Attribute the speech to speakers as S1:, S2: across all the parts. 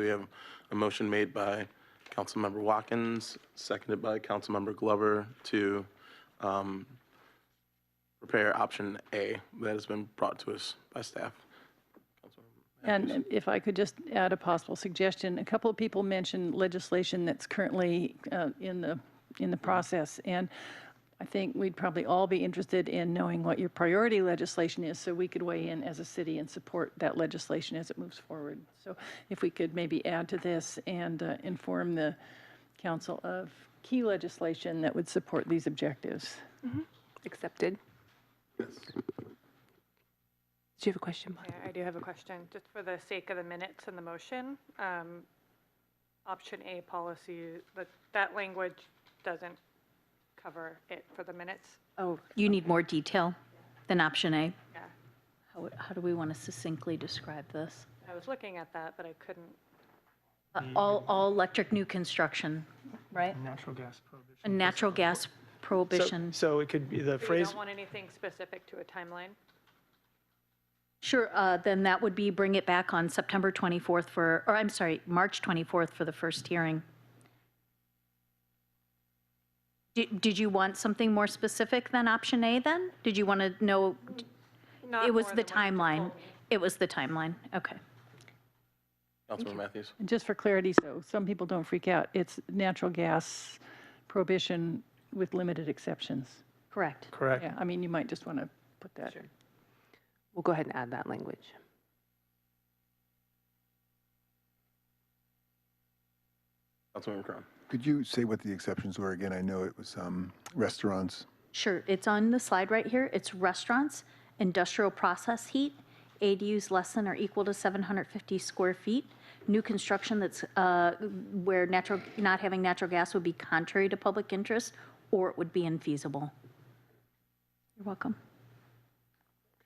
S1: We have a motion made by Councilmember Watkins, seconded by Councilmember Glover to um, prepare option A that has been brought to us by staff.
S2: And if I could just add a possible suggestion, a couple of people mentioned legislation that's currently uh, in the, in the process. And I think we'd probably all be interested in knowing what your priority legislation is so we could weigh in as a city and support that legislation as it moves forward. So if we could maybe add to this and uh, inform the council of key legislation that would support these objectives.
S3: Accepted.
S1: Yes.
S3: Did you have a question, Molly?
S4: Yeah, I do have a question, just for the sake of the minutes and the motion. um, Option A policy, that, that language doesn't cover it for the minutes.
S3: Oh,
S5: You need more detail than option A?
S4: Yeah.
S5: How, how do we want to succinctly describe this?
S4: I was looking at that, but I couldn't,
S5: Uh,
S4: Mm-hmm.
S5: All, all electric new construction, right?
S6: Natural gas prohibition.
S5: A natural gas prohibition.
S6: So it could be the
S4: so you
S6: phrase,
S4: don't want anything specific to a timeline?
S5: Sure, uh, then that would be bring it back on September 24th for, or I'm sorry, March 24th for the first hearing. Did, did you want something more specific than option A then? Did you want to know,
S4: Not
S5: it was
S4: more
S5: the
S4: than what you
S5: timeline? It was the timeline, okay.
S1: Councilmember Matthews?
S2: And just for clarity, so some people don't freak out, it's natural gas prohibition with limited exceptions.
S5: Correct.
S6: correct,
S2: Yeah, I mean, you might just want to put that.
S3: we'll go ahead and add that language.
S1: Councilmember Crum?
S7: Could you say what the exceptions were again? I know it was um, restaurants.
S5: Sure, it's on the slide right here. It's restaurants, industrial process heat, ADUs less than or equal to 750 square feet, new construction that's, uh, where natural, not having natural gas would be contrary to public interest, or it would be infeasible. You're welcome.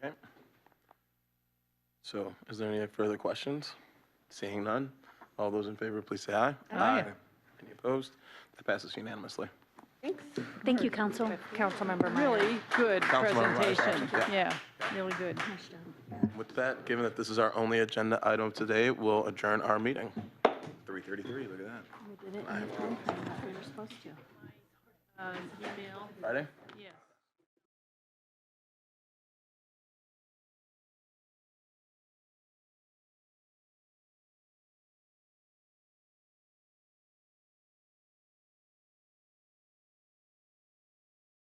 S1: Okay. So is there any further questions? Seeing none, all those in favor, please say aye. Aye. Any opposed? That passes unanimously.
S5: Thank you, council.
S4: Councilmember
S2: Really good
S1: Councilmember Myers,
S2: presentation. Yeah,
S1: yeah.
S2: really good.
S1: With that, given that this is our only agenda item today, we'll adjourn our meeting.
S8: 333, look at that.
S2: Um,
S1: Friday?